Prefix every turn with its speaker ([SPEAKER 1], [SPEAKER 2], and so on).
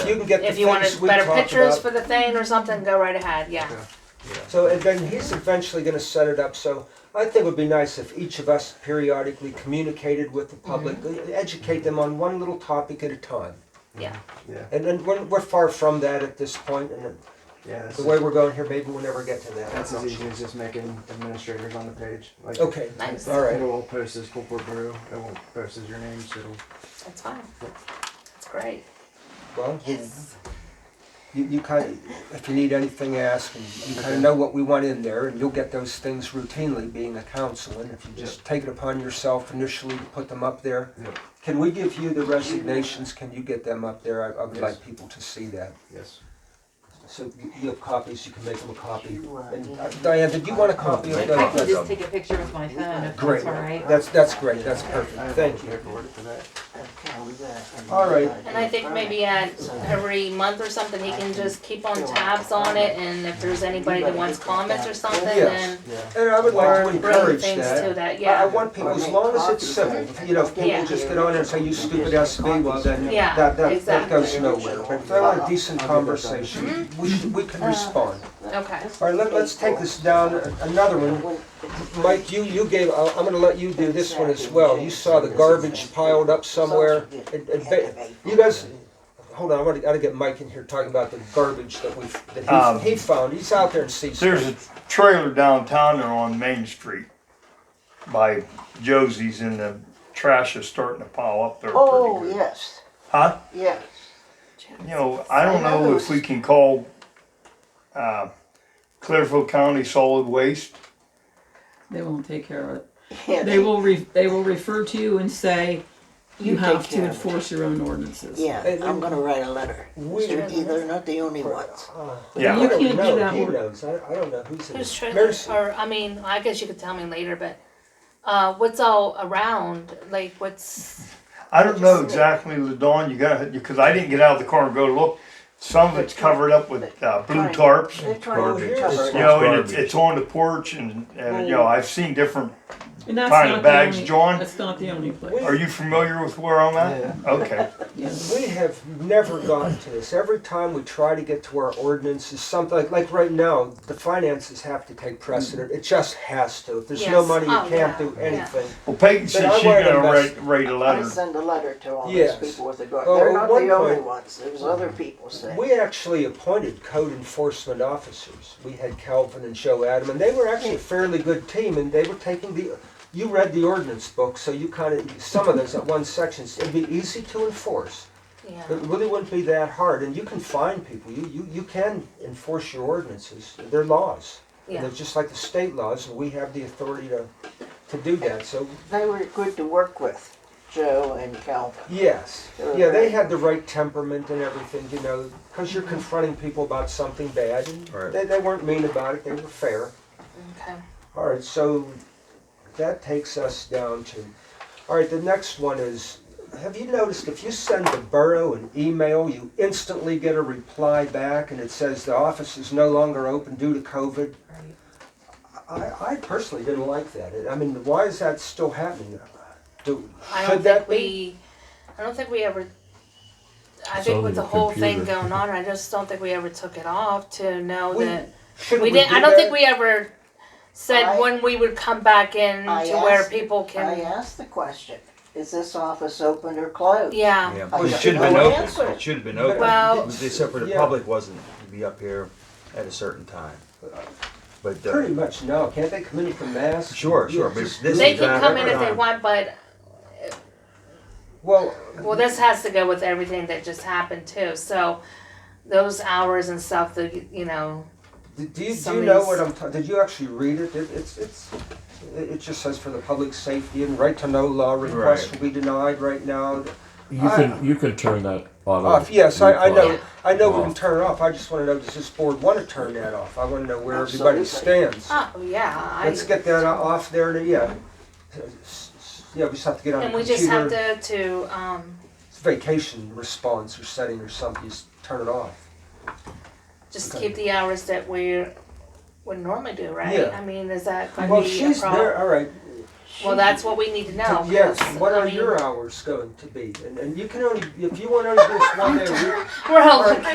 [SPEAKER 1] you can get the
[SPEAKER 2] If you wanted
[SPEAKER 1] things we
[SPEAKER 2] better
[SPEAKER 1] talked
[SPEAKER 2] pictures
[SPEAKER 1] about.
[SPEAKER 2] for the thing or something, go right ahead, yeah.
[SPEAKER 1] So and then he's eventually going to set it up. So I think it would be nice if each of us periodically communicated with the public,
[SPEAKER 2] Mm-hmm.
[SPEAKER 1] e- educate them on one little topic at a time.
[SPEAKER 2] Yeah.
[SPEAKER 3] Yeah,
[SPEAKER 1] And then we're, we're far from that at this point, and
[SPEAKER 3] yeah. That's,
[SPEAKER 1] the way we're going here, maybe we'll never get to that.
[SPEAKER 3] that's as easy as just making administrators on the page. Like,
[SPEAKER 1] Okay.
[SPEAKER 2] Nice.
[SPEAKER 1] All right.
[SPEAKER 3] It won't post as corporate brew. It won't post as your name. So it'll,
[SPEAKER 2] That's fine. That's great.
[SPEAKER 1] Well,
[SPEAKER 2] Yes.
[SPEAKER 1] you, you kind of, if you need anything, ask, and you kind of know what we want in there, and you'll get those things routinely being a council, and if you just take it upon yourself initially to put them up there.
[SPEAKER 3] yeah.
[SPEAKER 1] Can we give you the resignations, can you get them up there? I, I would
[SPEAKER 3] Yes.
[SPEAKER 1] like people to see that.
[SPEAKER 3] Yes.
[SPEAKER 1] So you- you have copies, you can make them a copy. And uh, Diane, did you want a copy of
[SPEAKER 4] I can
[SPEAKER 1] the?
[SPEAKER 4] just take a picture with my phone if
[SPEAKER 1] Great,
[SPEAKER 4] that's all right.
[SPEAKER 1] that's, that's great, that's
[SPEAKER 3] I
[SPEAKER 1] perfect,
[SPEAKER 3] have
[SPEAKER 1] thank
[SPEAKER 3] the
[SPEAKER 1] you.
[SPEAKER 3] Paperwork for that.
[SPEAKER 1] All right.
[SPEAKER 2] And I think maybe at every month or something, he can just keep on tabs on it and if there's anybody that wants comments or something,
[SPEAKER 1] Yes.
[SPEAKER 2] then
[SPEAKER 3] Yeah.
[SPEAKER 1] And I would like to
[SPEAKER 2] or bring
[SPEAKER 1] encourage
[SPEAKER 2] things to
[SPEAKER 1] that.
[SPEAKER 2] that,
[SPEAKER 1] I- I
[SPEAKER 2] yeah.
[SPEAKER 1] want people, as long as it's simple, you know, if people
[SPEAKER 2] Yeah.
[SPEAKER 1] just get on and say, you stupid SB, well, then
[SPEAKER 2] Yeah,
[SPEAKER 1] that, that, that
[SPEAKER 2] exactly.
[SPEAKER 1] goes nowhere. But if they want a decent
[SPEAKER 3] I'll do that.
[SPEAKER 1] conversation, we should, we
[SPEAKER 2] Mm-hmm.
[SPEAKER 1] can respond.
[SPEAKER 2] Okay.
[SPEAKER 1] All right, let, let's take this down, a- another one. Mike, you, you gave, I'll- I'm gonna let you do this one as well. You saw the garbage piled up somewhere. And- and ba- You guys, hold on, I gotta, gotta get Mike in here talking about the garbage that we, that
[SPEAKER 5] Um,
[SPEAKER 1] he, he found. He's out there and sees.
[SPEAKER 5] There's a trailer downtown there on Main Street by Josie's and the trash is starting to pile up there pretty
[SPEAKER 6] Oh,
[SPEAKER 5] good.
[SPEAKER 6] yes,
[SPEAKER 5] Huh?
[SPEAKER 6] yes.
[SPEAKER 5] You know, I don't know if we can call, uh, Clearfield County Solid Waste.
[SPEAKER 7] They won't take care of it.
[SPEAKER 6] Yeah,
[SPEAKER 7] They will re, they will refer to you and say,
[SPEAKER 6] You
[SPEAKER 7] you
[SPEAKER 6] take
[SPEAKER 7] have
[SPEAKER 6] care
[SPEAKER 7] to
[SPEAKER 6] of it."
[SPEAKER 7] enforce your own ordinances.
[SPEAKER 6] Yeah, I'm gonna write a letter.
[SPEAKER 1] We-
[SPEAKER 6] They're, they're not the only ones.
[SPEAKER 5] Yeah.
[SPEAKER 1] I
[SPEAKER 7] You
[SPEAKER 1] Uh, don't
[SPEAKER 7] can't do
[SPEAKER 1] know.
[SPEAKER 7] that
[SPEAKER 1] He
[SPEAKER 7] one.
[SPEAKER 1] knows. I, I don't know who's in
[SPEAKER 2] Who's
[SPEAKER 1] it.
[SPEAKER 2] trailer,
[SPEAKER 1] Mercy.
[SPEAKER 2] or, I mean, I guess you could tell me later, but, uh, what's all around, like, what's,
[SPEAKER 5] I don't know exactly, Ladon, you gotta, because I didn't get out of the car and go look. Some of it's covered up with, uh, blue tarps.
[SPEAKER 6] They're trying to
[SPEAKER 1] Garbage.
[SPEAKER 6] recover
[SPEAKER 5] You
[SPEAKER 6] it.
[SPEAKER 5] know, and it's, it's on the porch and, and, you know, I've seen different,
[SPEAKER 7] And that's
[SPEAKER 5] Fine,
[SPEAKER 7] not
[SPEAKER 5] the
[SPEAKER 7] the
[SPEAKER 5] bags,
[SPEAKER 7] only-
[SPEAKER 5] John.
[SPEAKER 7] That's not the only place.
[SPEAKER 1] We-
[SPEAKER 5] are you familiar with where I'm at? Okay.
[SPEAKER 7] Yeah.
[SPEAKER 1] We have never gotten to this. Every time we try to get to our ordinances, something like, like right now, the finances have to take precedent. It just has to. If there's no
[SPEAKER 2] Yes.
[SPEAKER 1] money, you
[SPEAKER 2] Oh,
[SPEAKER 1] can't
[SPEAKER 2] yeah.
[SPEAKER 1] do
[SPEAKER 2] Yeah.
[SPEAKER 1] anything.
[SPEAKER 5] Well, Peyton said
[SPEAKER 1] I
[SPEAKER 5] she's
[SPEAKER 1] wanted to
[SPEAKER 5] gonna
[SPEAKER 1] invest-
[SPEAKER 5] write, write a
[SPEAKER 6] I
[SPEAKER 5] letter.
[SPEAKER 6] send a letter to all these
[SPEAKER 1] Yes.
[SPEAKER 6] people with the garbage.
[SPEAKER 1] Oh,
[SPEAKER 6] They're
[SPEAKER 1] at
[SPEAKER 6] not
[SPEAKER 1] one
[SPEAKER 6] the only
[SPEAKER 1] point-
[SPEAKER 6] ones, there's other people saying.
[SPEAKER 1] We actually appointed code enforcement officers. We had Calvin and Joe Adam, and they were actually a fairly good team, and they were taking the, you read the ordinance book, so you kind of, some of those at one sections, it'd be easy to enforce.
[SPEAKER 2] yeah.
[SPEAKER 1] It really wouldn't be that hard, and you can find people, you, you, you can enforce your ordinances, they're laws. And
[SPEAKER 2] Yeah.
[SPEAKER 1] they're just like the state laws, and we have the authority to, to do that, so,
[SPEAKER 6] They were good to work with, Joe and Calvin.
[SPEAKER 1] yes. Yeah, they had the right temperament and everything, you know, because
[SPEAKER 2] Mm-hmm.
[SPEAKER 1] you're confronting people about something bad, and
[SPEAKER 3] Right.
[SPEAKER 1] they, they weren't mean about it, they were fair.
[SPEAKER 2] Okay.
[SPEAKER 1] All right, so that takes us down to, all right, the next one is, have you noticed if you send the borough an email, you instantly get a reply back and it says the office is no longer open due to COVID? I, I personally didn't like that. I mean, why is that still happening? Do,
[SPEAKER 2] I
[SPEAKER 1] should
[SPEAKER 2] don't
[SPEAKER 1] that
[SPEAKER 2] think
[SPEAKER 1] be?
[SPEAKER 2] we, I don't think we ever, I
[SPEAKER 8] It's
[SPEAKER 2] think
[SPEAKER 8] on
[SPEAKER 2] with the
[SPEAKER 8] your
[SPEAKER 2] whole thing
[SPEAKER 8] computer.
[SPEAKER 2] going on, I just don't think we ever took it off to know
[SPEAKER 1] We-
[SPEAKER 2] that,
[SPEAKER 1] Shouldn't
[SPEAKER 2] we
[SPEAKER 1] we
[SPEAKER 2] didn't,
[SPEAKER 1] do
[SPEAKER 2] I don't think
[SPEAKER 1] that?
[SPEAKER 2] we ever said
[SPEAKER 6] I-
[SPEAKER 2] when we would come back in
[SPEAKER 6] I
[SPEAKER 2] to where
[SPEAKER 6] asked-
[SPEAKER 2] people
[SPEAKER 6] I
[SPEAKER 2] can,
[SPEAKER 6] asked the question, is this office open or closed?
[SPEAKER 2] yeah.
[SPEAKER 8] Yeah,
[SPEAKER 6] I
[SPEAKER 8] it
[SPEAKER 6] got
[SPEAKER 8] should have been
[SPEAKER 6] no
[SPEAKER 8] open.
[SPEAKER 6] answer.
[SPEAKER 8] It should have been open.
[SPEAKER 2] Well-
[SPEAKER 8] except for the
[SPEAKER 1] Yeah.
[SPEAKER 8] public wasn't to be up here at a certain time. But uh,
[SPEAKER 1] Pretty much no, can't they come in with a mask?
[SPEAKER 8] Sure,
[SPEAKER 1] You know,
[SPEAKER 8] sure, but
[SPEAKER 1] just-
[SPEAKER 8] this
[SPEAKER 2] They
[SPEAKER 8] is
[SPEAKER 2] can
[SPEAKER 8] not
[SPEAKER 2] come in if
[SPEAKER 8] ever
[SPEAKER 2] they
[SPEAKER 8] on.
[SPEAKER 2] want, but,
[SPEAKER 1] Well,
[SPEAKER 2] well, this has to go with everything that just happened too, so those hours and stuff, the, you know,
[SPEAKER 1] Do, do you, do
[SPEAKER 2] Some
[SPEAKER 1] you
[SPEAKER 2] of
[SPEAKER 1] know
[SPEAKER 2] these-
[SPEAKER 1] what I'm talking? Did you actually read it? it it's it's it it just says for the public safety and right to know law requests
[SPEAKER 8] Right.
[SPEAKER 1] will be denied right now.
[SPEAKER 8] You
[SPEAKER 1] I-
[SPEAKER 8] can-
[SPEAKER 4] You could turn that auto.
[SPEAKER 1] off. Yes, I, I know.
[SPEAKER 2] Yeah.
[SPEAKER 1] I know we can
[SPEAKER 4] Off.
[SPEAKER 1] turn it off. I just want to know does this board want to turn that off? I want to know where everybody
[SPEAKER 6] Absolutely.
[SPEAKER 1] stands.
[SPEAKER 2] oh, yeah,
[SPEAKER 1] Ah.
[SPEAKER 2] I,
[SPEAKER 1] Let's get that o- off there. To, yeah, S- s- yeah. We just have to get on.
[SPEAKER 2] and
[SPEAKER 1] the
[SPEAKER 2] we
[SPEAKER 1] computer.
[SPEAKER 2] just have to, to, um,
[SPEAKER 1] vacation response or setting or something. Just turn it off.
[SPEAKER 2] just
[SPEAKER 1] Okay.
[SPEAKER 2] keep the hours that we would normally do, right?
[SPEAKER 1] Yeah.
[SPEAKER 2] I mean, uh, is that gonna
[SPEAKER 1] Well,
[SPEAKER 2] be
[SPEAKER 1] she's
[SPEAKER 2] a problem?
[SPEAKER 1] there. All right.
[SPEAKER 2] Well, that's what we need to know.
[SPEAKER 1] Yes,
[SPEAKER 2] 'cause,
[SPEAKER 1] what
[SPEAKER 2] I
[SPEAKER 1] are
[SPEAKER 2] mean,
[SPEAKER 1] your hours going to be? And, and you can only, if you want to do this one day a week,
[SPEAKER 2] We're helping.